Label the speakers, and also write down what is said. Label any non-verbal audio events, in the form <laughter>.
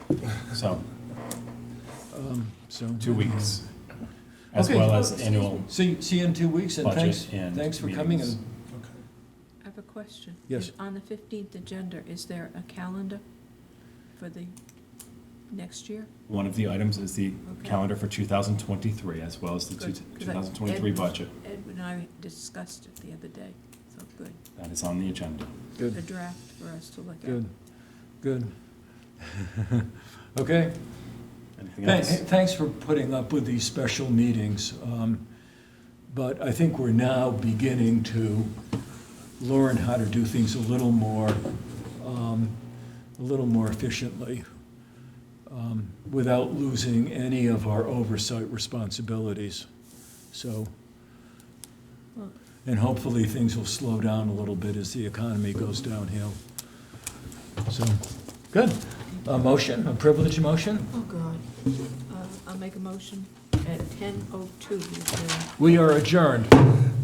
Speaker 1: So,
Speaker 2: Um, So,
Speaker 1: two weeks, as
Speaker 2: Uh-huh. Okay.
Speaker 1: well as annual.
Speaker 2: see, see you in two weeks, and
Speaker 1: Budget
Speaker 2: thanks,
Speaker 1: and
Speaker 2: thanks for coming.
Speaker 1: meetings.
Speaker 2: and-
Speaker 3: I have a question.
Speaker 2: Yes.
Speaker 3: Is- On the 15th agenda, is there a calendar for the next year?
Speaker 1: One of the items is the
Speaker 3: Okay.
Speaker 1: calendar for 2023, as well as the two-
Speaker 3: Good, 'cause I-
Speaker 1: 2023
Speaker 3: Ed-
Speaker 1: budget.
Speaker 3: Edwin and I discussed it the other day, so good.
Speaker 1: That is on the agenda.
Speaker 3: A
Speaker 2: Good,
Speaker 3: draft for us to look at.
Speaker 2: good, good. <laughs> Okay,
Speaker 1: Anything
Speaker 2: Thank-
Speaker 1: else?
Speaker 2: thanks for putting up with these special meetings. um, But I think we're now beginning to learn how to do things a little more, um, a little more efficiently, um, without losing any of our oversight responsibilities. So,
Speaker 3: Well-
Speaker 2: and hopefully, things will slow down a little bit as the economy goes downhill. So, good. A motion, a privilege motion?
Speaker 3: Oh, God. Uh, I'll make a motion at 10:02.
Speaker 2: We are adjourned.